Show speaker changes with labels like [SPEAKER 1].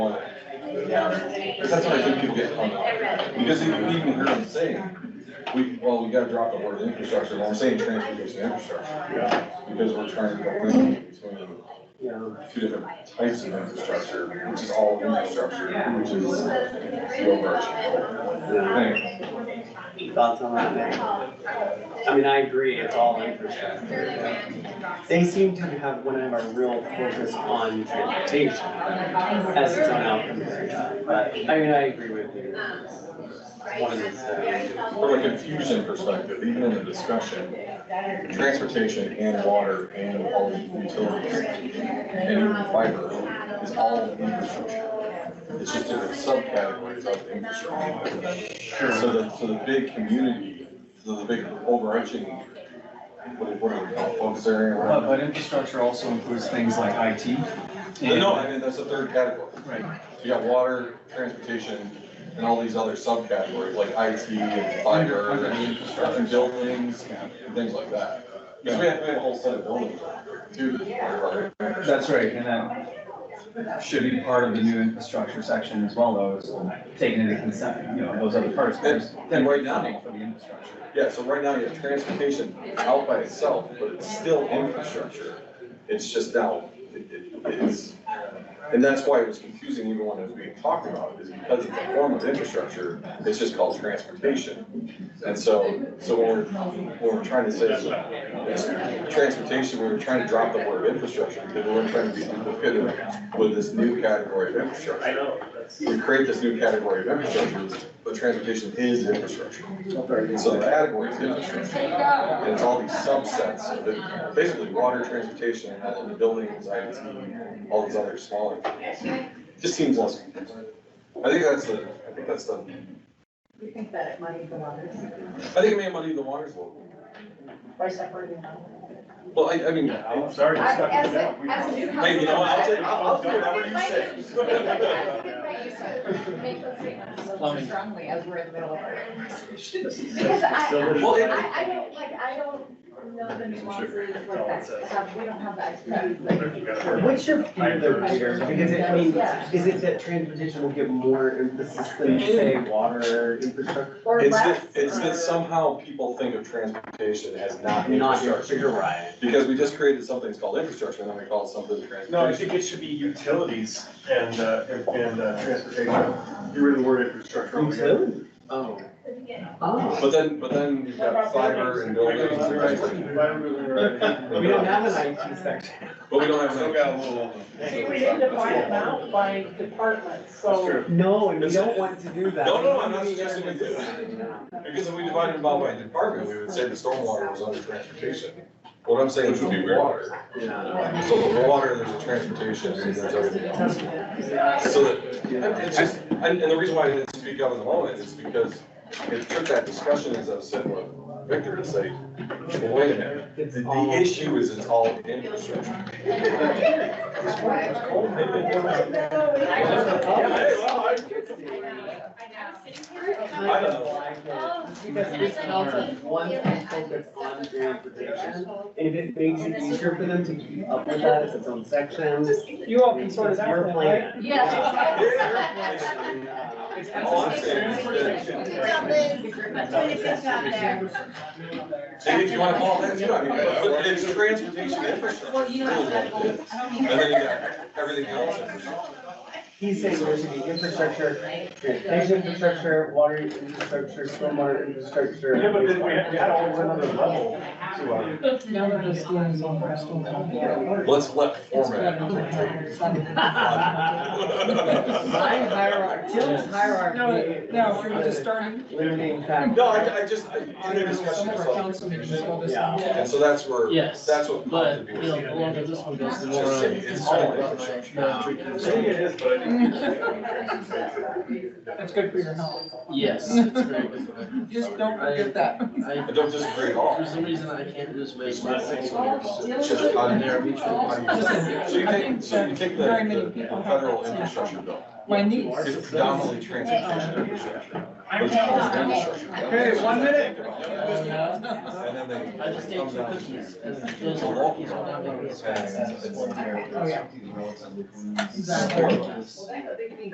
[SPEAKER 1] That's what I think people get hung up. Because even, even hear them say, we, well, we gotta drop the word infrastructure, well, I'm saying transportation infrastructure. Because we're trying to delineate between two different types of infrastructure, which is all infrastructure, which is the overarching goal.
[SPEAKER 2] Thoughts on that, Nick? I mean, I agree, it's all infrastructure. They seem to have one of our real focus on transportation as its own outcome every time, but, I mean, I agree with you. It's One of the,
[SPEAKER 1] Thing. From a confusion perspective, even in the discussion, transportation and water and all the utilities and fiber is all infrastructure. It's just different subcategories of infrastructure. So the, so the big community, so the big overarching, what what do we call it, focus area? or
[SPEAKER 3] But,
[SPEAKER 1] whatever.
[SPEAKER 3] but infrastructure also includes things like IT.
[SPEAKER 1] But
[SPEAKER 3] and- uh,
[SPEAKER 1] No, I mean, that's the third category.
[SPEAKER 3] Right,
[SPEAKER 1] You got water, transportation, and all these other subcategories like IT and fiber and construction buildings and things like that. Because we have, we have a whole set of buildings too. that are-
[SPEAKER 3] that's right, and that should be part of the new infrastructure section as well, though, is taking into consideration, you know, those other parts. There's-
[SPEAKER 1] And right now-
[SPEAKER 3] funding For the infrastructure.
[SPEAKER 1] Yeah, so right now you have transportation out by itself, but it's still infrastructure. It's just now, it, it- it's, and that's why it was confusing even when it was being talked about, is because it's a form of infrastructure, it's just called transportation. And so, so when we're, when we're trying to say it's transportation, we were trying to drop the word infrastructure, because we we're trying to be competitive with this new category of infrastructure. We create this new category of infrastructure, but transportation is infrastructure. And so the categories is infrastructure. And it's all these subsets of it, basically water, transportation, and all of the buildings, IT, all these other smaller things. Just seems less. I think that's the, I think that's the,
[SPEAKER 4] We think that money for others
[SPEAKER 1] I think it may muddy the waters a little.
[SPEAKER 4] by separating them.
[SPEAKER 1] Well, I, I mean,
[SPEAKER 5] I'm sorry.
[SPEAKER 6] I- As a, as a new
[SPEAKER 1] hey, you know, what, I'll take, I'll, I'll do whatever you say.
[SPEAKER 6] say.
[SPEAKER 3] Plumbing.
[SPEAKER 6] Strongly as we're in the middle of it. Because I,
[SPEAKER 1] Well, it-
[SPEAKER 6] I, I don't, like, I don't know the nuances like that stuff, we don't have that expertise, like.
[SPEAKER 2] What's your favorite here? Because it, I mean, is it that transportation will get more emphasis than say water infrastructure?
[SPEAKER 6] or
[SPEAKER 1] It's
[SPEAKER 6] less,
[SPEAKER 1] that, it's that
[SPEAKER 6] or-
[SPEAKER 1] somehow people think of transportation as not
[SPEAKER 2] Not
[SPEAKER 1] infrastructure.
[SPEAKER 2] infrastructure, you're right.
[SPEAKER 1] Because we just created something that's called infrastructure, and then we call it something transportation.
[SPEAKER 5] No, I think it should be utilities and, uh, and- and uh, transportation. You read the word infrastructure. altogether.
[SPEAKER 2] Oh. Oh.
[SPEAKER 1] But then, but then you've got fiber and
[SPEAKER 5] I
[SPEAKER 1] buildings
[SPEAKER 5] got
[SPEAKER 1] and
[SPEAKER 5] it.
[SPEAKER 1] everything.
[SPEAKER 2] We don't have an IT section.
[SPEAKER 1] But we don't have. Still got a little.
[SPEAKER 4] See, we need to divide them out by department, so.
[SPEAKER 2] No, and we don't want to do that.
[SPEAKER 1] No, no, I'm not suggesting we do. Because if we divided them out by department, we would say the stormwater was under transportation. What I'm saying is would be water.
[SPEAKER 2] Yeah.
[SPEAKER 1] So the water, there's a transportation, and there's everything else. So that, and it's just, and, and the reason why I didn't speak up in the moment is because it took that discussion, as I was saying with Victor, to say, well, wait a minute.
[SPEAKER 2] It's
[SPEAKER 1] The, the
[SPEAKER 2] all-
[SPEAKER 1] issue is it's all infrastructure. Hey, well, I- I don't know.
[SPEAKER 2] Because we have one focus on transportation, and if it makes it easier for them to keep up with that, it's its own section.
[SPEAKER 4] You all can sort it out
[SPEAKER 2] Your
[SPEAKER 4] then,
[SPEAKER 2] plan.
[SPEAKER 4] right?
[SPEAKER 6] Yeah.
[SPEAKER 2] It's
[SPEAKER 1] All I'm saying is And if you wanna call it that, too, I mean, but it's transportation infrastructure. And then you got everything else.
[SPEAKER 2] He's saying there should be infrastructure, transportation infrastructure, water infrastructure, stormwater infrastructure.
[SPEAKER 5] Yeah, but then we had, we had always another level to our.
[SPEAKER 1] Let's let format.
[SPEAKER 2] My hierarchy, Jim's hierarchy.
[SPEAKER 7] No, no, we're
[SPEAKER 2] is
[SPEAKER 7] just starting.
[SPEAKER 2] Limiting factor.
[SPEAKER 1] No, I, I just, I, in the discussion, I saw the confusion. and so that's where,
[SPEAKER 8] Yes,
[SPEAKER 1] that's what.
[SPEAKER 8] but, you know, the longer this one goes, the more.
[SPEAKER 1] Just say it's all infrastructure.
[SPEAKER 5] Maybe it is, but I
[SPEAKER 7] That's good for your health.
[SPEAKER 8] Yes, it's great.
[SPEAKER 7] Just don't forget that.
[SPEAKER 8] I,
[SPEAKER 1] I don't disagree at all.
[SPEAKER 8] for some reason, I can't lose weight.
[SPEAKER 1] It's just on there. So you take, so you take the,
[SPEAKER 7] Very many
[SPEAKER 1] the
[SPEAKER 7] people have
[SPEAKER 1] federal
[SPEAKER 7] that.
[SPEAKER 1] infrastructure bill,
[SPEAKER 7] My niece.
[SPEAKER 1] it's predominantly transportation infrastructure. But it's called infrastructure.
[SPEAKER 7] Okay, one minute.
[SPEAKER 1] And then they.
[SPEAKER 8] I just ate two cookies and those
[SPEAKER 1] So
[SPEAKER 8] are
[SPEAKER 1] walking
[SPEAKER 8] cookies
[SPEAKER 1] around
[SPEAKER 8] will not make me
[SPEAKER 1] that
[SPEAKER 8] as fat.
[SPEAKER 4] Oh,
[SPEAKER 1] way, it's- it's-
[SPEAKER 7] Oh, yeah.
[SPEAKER 1] it's horrible.